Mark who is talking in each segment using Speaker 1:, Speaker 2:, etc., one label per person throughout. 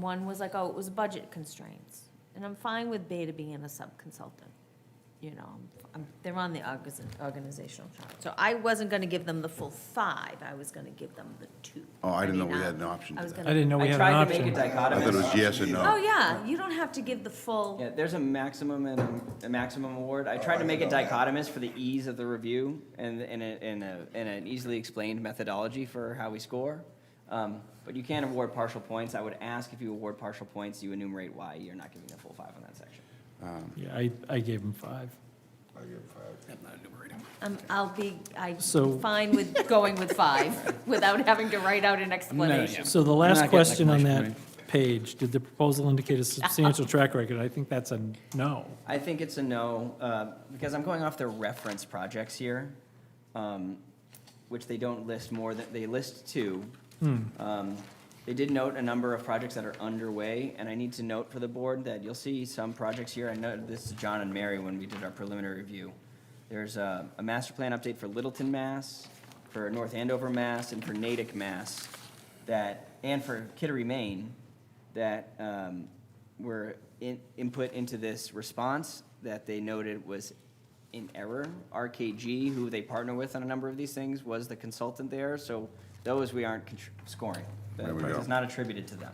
Speaker 1: One was like, oh, it was budget constraints. And I'm fine with Beta being a sub-consultant, you know, I'm- I'm, they're on the orgaz- organizational chart. So I wasn't gonna give them the full five, I was gonna give them the two.
Speaker 2: Oh, I didn't know
Speaker 1: mean,
Speaker 2: we
Speaker 1: uh,
Speaker 2: had an option
Speaker 1: I
Speaker 2: to
Speaker 1: was
Speaker 2: that.
Speaker 1: gonna-
Speaker 3: I didn't know we
Speaker 4: I
Speaker 3: had an
Speaker 4: tried to make
Speaker 3: option.
Speaker 4: it
Speaker 2: I thought it
Speaker 4: dichotomous.
Speaker 2: was yes and
Speaker 1: Oh,
Speaker 2: no.
Speaker 1: yeah, you don't have to give the full.
Speaker 4: Yeah, there's a maximum and a- a maximum award. I tried to make it dichotomous for the ease of the review and, and a, and a, and an easily explained methodology for how we score. Um, but you can award partial points. I would ask if you award partial points, you enumerate why you're not giving the full five on that section.
Speaker 3: Yeah, I, I gave him five.
Speaker 1: Um, I'll be, I'm
Speaker 3: So-
Speaker 1: fine with going with five, without having to write out an explanation.
Speaker 3: So the
Speaker 5: not
Speaker 3: last
Speaker 5: getting
Speaker 3: question on that
Speaker 5: explanation
Speaker 3: page, did the proposal indicate a substantial track record? I think that's a no.
Speaker 4: I think it's a no, uh, because I'm going off their reference projects here, um, which they don't list more than, they list two. Um, They did note a number of projects that are underway, and I need to note for the board that you'll see some projects here, I know this is John and Mary when we did our preliminary review. There's a, a master plan update for Littleton, Mass, for North Andover, Mass, and for Natick, Mass, that, and for Kittery, Maine, that um, were in- input into this response that they noted was in error. RKG, who they partner with on a number of these things, was the consultant there, so those we aren't contr- scoring.
Speaker 2: There we go.
Speaker 4: It's not attributed to them.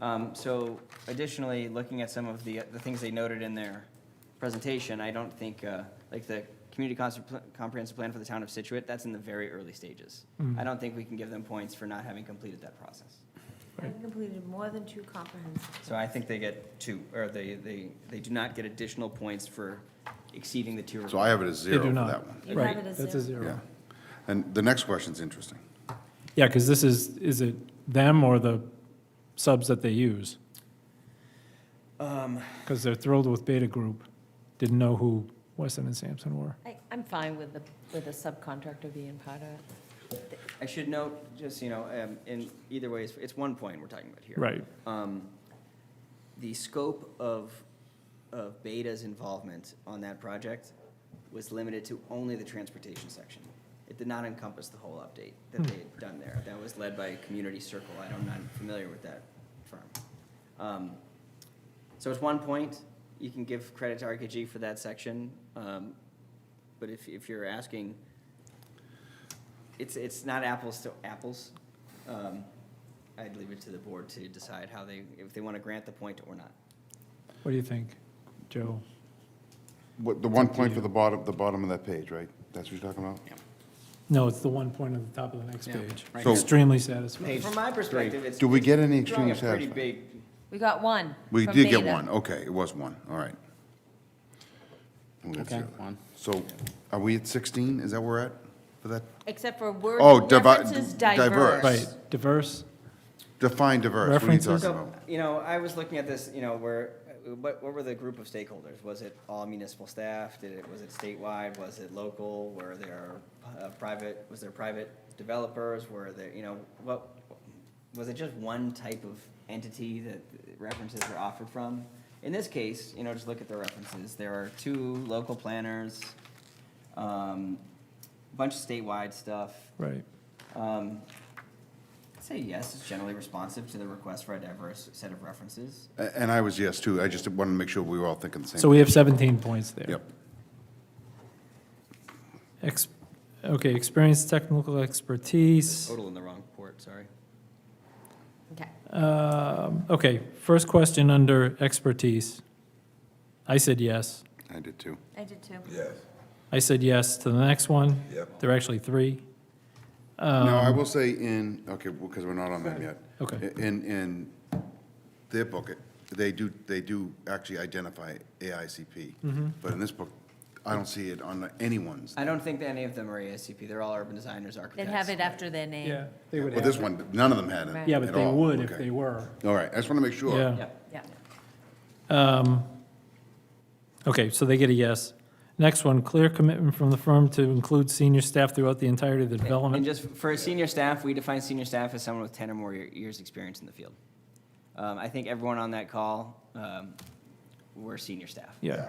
Speaker 4: Um, So additionally, looking at some of the, the things they noted in their presentation, I don't think, uh, like the community cons- comprehensive plan for the town of Situate, that's in the very early stages. I don't think we can give them points for not having completed that process.
Speaker 1: I completed more than two comprehensive.
Speaker 4: So I think they get two, or they, they, they do not get additional points for exceeding the tier.
Speaker 2: So I have it as
Speaker 3: They
Speaker 2: zero
Speaker 3: do
Speaker 2: for
Speaker 3: not.
Speaker 2: that one.
Speaker 1: You
Speaker 3: Right,
Speaker 1: have it as
Speaker 3: That's a
Speaker 1: zero.
Speaker 2: Yeah.
Speaker 3: zero.
Speaker 2: And the next question's interesting.
Speaker 3: Yeah, because this is, is it them or the subs that they use? Because they're thrilled with Beta Group, didn't know who Weston and Sampson were.
Speaker 1: I, I'm fine with the, with the subcontractor being part of it.
Speaker 4: I should note, just, you know, um, in either way, it's, it's one point we're talking about here.
Speaker 3: Right.
Speaker 4: Um, The scope of, of Beta's involvement on that project was limited to only the transportation section. It did not encompass the whole update that they had done there. That was led by Community Circle. I don't, I'm not familiar with that firm. Um, So it's one point. You can give credit to RKG for that section. um, But if, if you're asking, it's, it's not apples to apples. Um, I'd leave it to the board to decide how they, if they want to grant the point or not.
Speaker 3: What do you think, Joe?
Speaker 2: What, the one point for the bottom, the bottom of that page, right? That's what you're talking about?
Speaker 3: No, it's the one point on the top of the next
Speaker 5: Yeah,
Speaker 3: page.
Speaker 5: right.
Speaker 2: So-
Speaker 3: Extremely satisfied.
Speaker 4: From my perspective, it's.
Speaker 2: Do we
Speaker 4: it's
Speaker 2: get any
Speaker 4: drawing
Speaker 2: extremely
Speaker 4: a pretty
Speaker 2: satisfied?
Speaker 4: big-
Speaker 1: We got one.
Speaker 2: We
Speaker 1: from
Speaker 2: did get
Speaker 1: Beta.
Speaker 2: one, okay, it was one, all right. And we got
Speaker 5: Okay,
Speaker 2: zero.
Speaker 5: one.
Speaker 2: So are we at 16? Is that where we're at for that?
Speaker 1: Except for word
Speaker 2: Oh, divi-
Speaker 1: references
Speaker 2: diverse.
Speaker 1: diverse.
Speaker 3: Right, diverse,
Speaker 2: Define diverse, what are you
Speaker 3: References.
Speaker 2: talking
Speaker 4: So,
Speaker 2: about?
Speaker 4: you know, I was looking at this, you know, where, what, what were the group of stakeholders? Was it all municipal staff? Did it, was it statewide? Was it local? Were there uh, private, was there private developers? Were there, you know, what, was it just one type of entity that references were offered from? In this case, you know, just look at the references. There are two local planners, um, bunch of statewide stuff,
Speaker 3: right.
Speaker 4: um, I'd say yes, it's generally responsive to the request for a diverse set of references.
Speaker 2: A- And I was yes, too, I just wanted to make sure we were all thinking the same.
Speaker 3: So we have 17 points there.
Speaker 2: Yep,
Speaker 3: Ex- Okay, experience, technical expertise.
Speaker 4: Total in the wrong port, sorry.
Speaker 1: Okay.
Speaker 3: Um, Okay, first question under expertise. I said yes.
Speaker 2: I did too.
Speaker 1: I did too.
Speaker 6: Yes,
Speaker 3: I said yes to the next one.
Speaker 6: Yep.
Speaker 3: There are actually three.
Speaker 2: No, I will say in, okay, because we're not on them yet.
Speaker 3: Um, Okay.
Speaker 2: In, in their book, it- they do, they do actually identify AICP.
Speaker 3: Mm-hmm.
Speaker 2: But in this book, I don't see it on anyone's.
Speaker 4: I don't think that any of them are ASCP, they're all urban designers,
Speaker 1: They'd
Speaker 4: architects.
Speaker 1: have it after their name.
Speaker 3: they would
Speaker 2: Well, this one, none of them had it
Speaker 1: Right.
Speaker 3: Yeah, but
Speaker 2: at
Speaker 3: they
Speaker 2: all.
Speaker 3: would if
Speaker 2: Okay.
Speaker 3: they were.
Speaker 2: All right, I just want to make sure.
Speaker 3: Yeah.
Speaker 4: Yeah.
Speaker 1: Yeah.
Speaker 3: Um, Okay, so they get a yes. Next one, clear commitment from the firm to include senior staff throughout the entirety of the
Speaker 4: And
Speaker 3: development.
Speaker 4: just for senior staff, we define senior staff as someone with ten or more year- years' experience in the field. Um, I think everyone on that call, um, were senior staff,
Speaker 3: Yeah,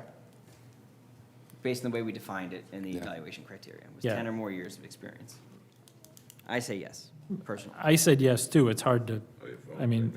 Speaker 4: based on the way we defined it in the
Speaker 2: Yeah.
Speaker 4: evaluation criteria, was
Speaker 3: Yeah.
Speaker 4: ten or more years of experience. I say yes, personally.
Speaker 3: I said yes too. It's hard to,
Speaker 6: Oh, your phone,
Speaker 3: I mean,